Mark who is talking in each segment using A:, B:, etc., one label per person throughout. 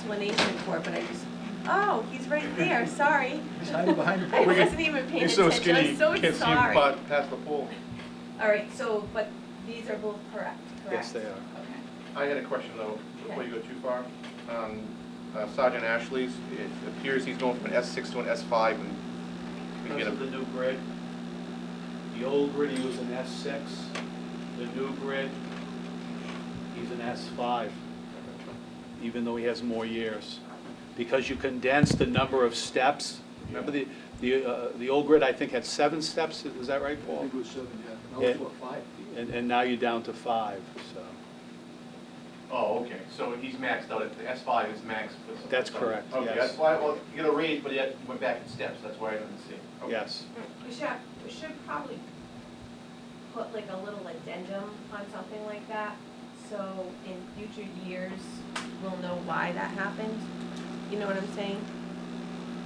A: explanation for it, but I just, oh, he's right there, sorry.
B: He's hiding behind the
A: I
B: pole.
A: wasn't even paying
C: You're so
A: attention,
C: skinny,
A: I'm
C: you
A: so
C: can't see your
A: sorry.
C: butt past the pole.
A: All right, so, but these are both correct, correct?
B: Yes, they are.
A: Okay.
C: I had a question though, before you go too far. Um, uh, Sergeant Ashley's, it appears he's going from an S six to an S five and we
D: Because
C: get
D: of
C: a,
D: the new grid. The old grid, he was an S six, the new grid, he's an S five, even though he has more years. Because you condense the number of steps, remember the, the, uh, the old grid, I think, had seven steps, is that right,
B: I
D: Paul?
B: think
C: Mm-hmm.
B: it was seven, yeah.
D: Yeah.
B: Now it's what, five?
D: And, and now you're down to five, so,
C: oh, okay, so he's maxed out, at- the S five is maxed for some.
D: That's correct,
C: Okay,
D: yes.
C: that's why, well, you got a raise, but yet went back in steps, that's why I didn't see. Okay.
D: yes.
A: We should, we should probably put like a little addendum on something like that, so in future years, we'll know why that happened. You know what I'm saying?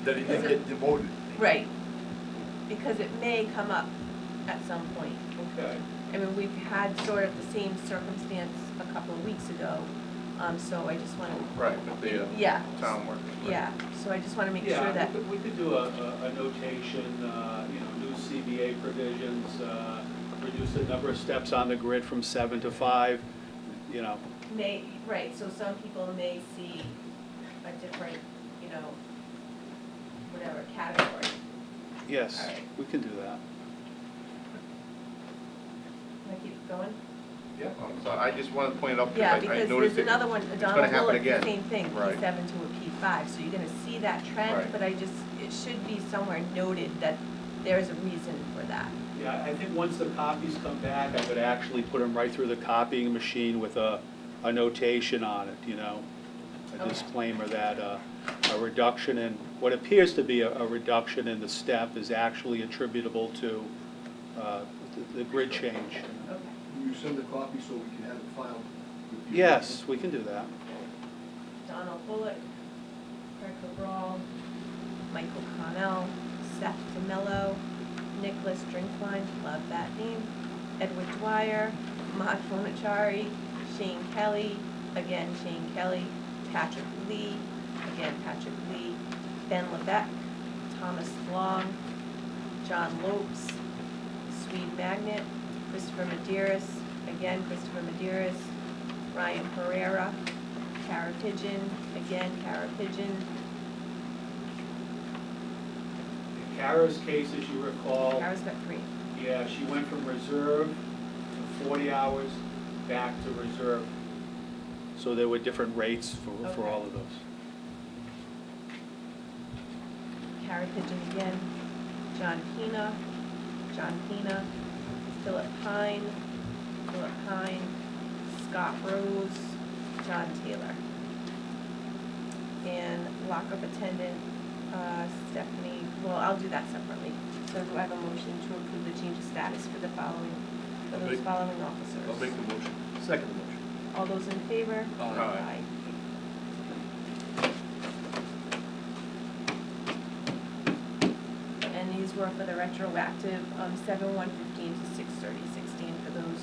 E: That he didn't get demoted.
A: Right. Because it may come up at some point.
C: Okay.
A: I mean, we've had sort of the same circumstance a couple of weeks ago, um, so I just wanna,
C: Right, but the uh,
A: yeah,
C: town workers. right.
A: yeah, so I just wanna make
D: Yeah,
A: sure
D: we
A: that,
D: could- We could do a, a a notation, uh, you know, new CBA provisions, uh, reduce the number of steps on the grid from seven to five, you know,
A: may, right, so some people may see a different, you know, whatever category.
D: yes,
A: All right.
D: we can do that.
A: Can I keep going?
C: Yeah, I'm sorry, Um, I just wanted to point it out
A: Yeah,
C: because I- I
A: because
C: noticed
A: there's
C: it.
A: another one,
C: gonna
A: Donald
C: happen
A: Bullock, the
C: again.
A: same thing, P
C: Right.
A: seven to a P five, so you're gonna see that trend,
C: Right.
A: but I just, it should be somewhere noted that there's a reason for that.
D: Yeah, I think once the copies come back, I would actually put them right through the copying machine with a, a notation on it, you know? A
A: Okay.
D: disclaimer that uh, a reduction in, what appears to be a, a reduction in the step is actually attributable to uh, the- the grid change.
A: Okay.
B: Will you send a copy so we can have it filed? with you?
D: Yes, we can do that.
A: Donald Bullock, Craig Cabral, Michael Connell, Seth DeMello, Nicholas Drinkline, love that name, Edward Dwyer, Mahat Monachari, Shane Kelly, again Shane Kelly, Patrick Lee, again Patrick Lee, Ben Levesque, Thomas Long, John Lopes, Swede Magnet, Christopher Maderas, again Christopher Maderas, Ryan Pereira, Cara Pigeon, again, Cara Pigeon,
D: In Kara's case, as you recall,
A: Cara's got three.
D: yeah, she went from reserve to forty hours back to reserve. So there were different rates for, for all of those.
A: Cara Pigeon again, John Pena, John Pena, Philip Pine, Philip Pine, Scott Rose, John Taylor. And lockup attendant, uh, Stephanie, well, I'll do that separately. So do I have a motion to approve the change of status for the following, for
E: I'll
A: those
E: make-
A: following officers?
E: I'll make the motion. Second the motion.
A: All those in favor?
E: Aye.
C: Aye.
A: Aye. And these were for the retroactive, um, seven one fifteen to six thirty sixteen for those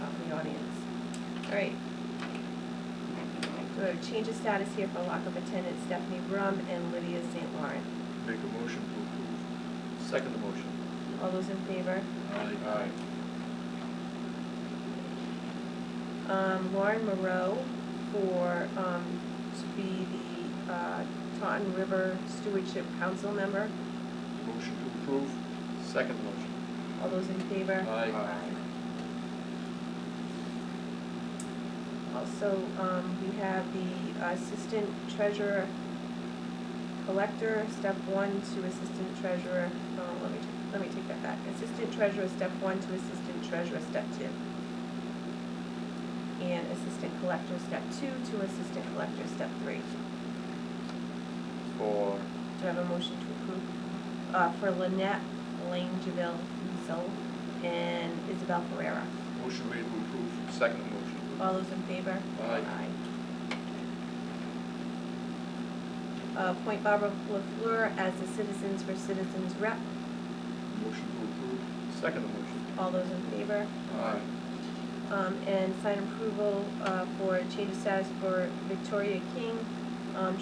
A: um, in the audience. All right. So we have change of status here for lockup attendant Stephanie Brum and Lydia St. Laurent.
E: Make a motion to approve. Second the motion.
A: All those in favor?
E: Aye.
C: Aye.
A: um, Lauren Moreau for, um, to be the, uh, Taunton River Stewardship Council member.
E: Motion to approve. Second the motion.
A: All those in favor?
E: Aye.
C: Uh,
A: Aye. Also, um, we have the Assistant Treasurer Collector, step one to Assistant Treasurer, um, let me, let me take that back. Assistant Treasurer, step one to Assistant Treasurer, step two. And Assistant Collector, step two to Assistant Collector, step three.
C: For,
A: Do I have a motion to approve uh, for Lynette Langeville Diesel and Isabel Ferreira?
E: Motion made to approve.
C: second motion.
A: All those in favor?
E: Aye.
A: Aye. Uh, Appoint Barbara LaFleur as the Citizens for Citizens rep.
E: Motion to approve. Second the motion.
A: All those in favor?
E: Aye.
A: Um, And sign approval uh, for change of status for Victoria King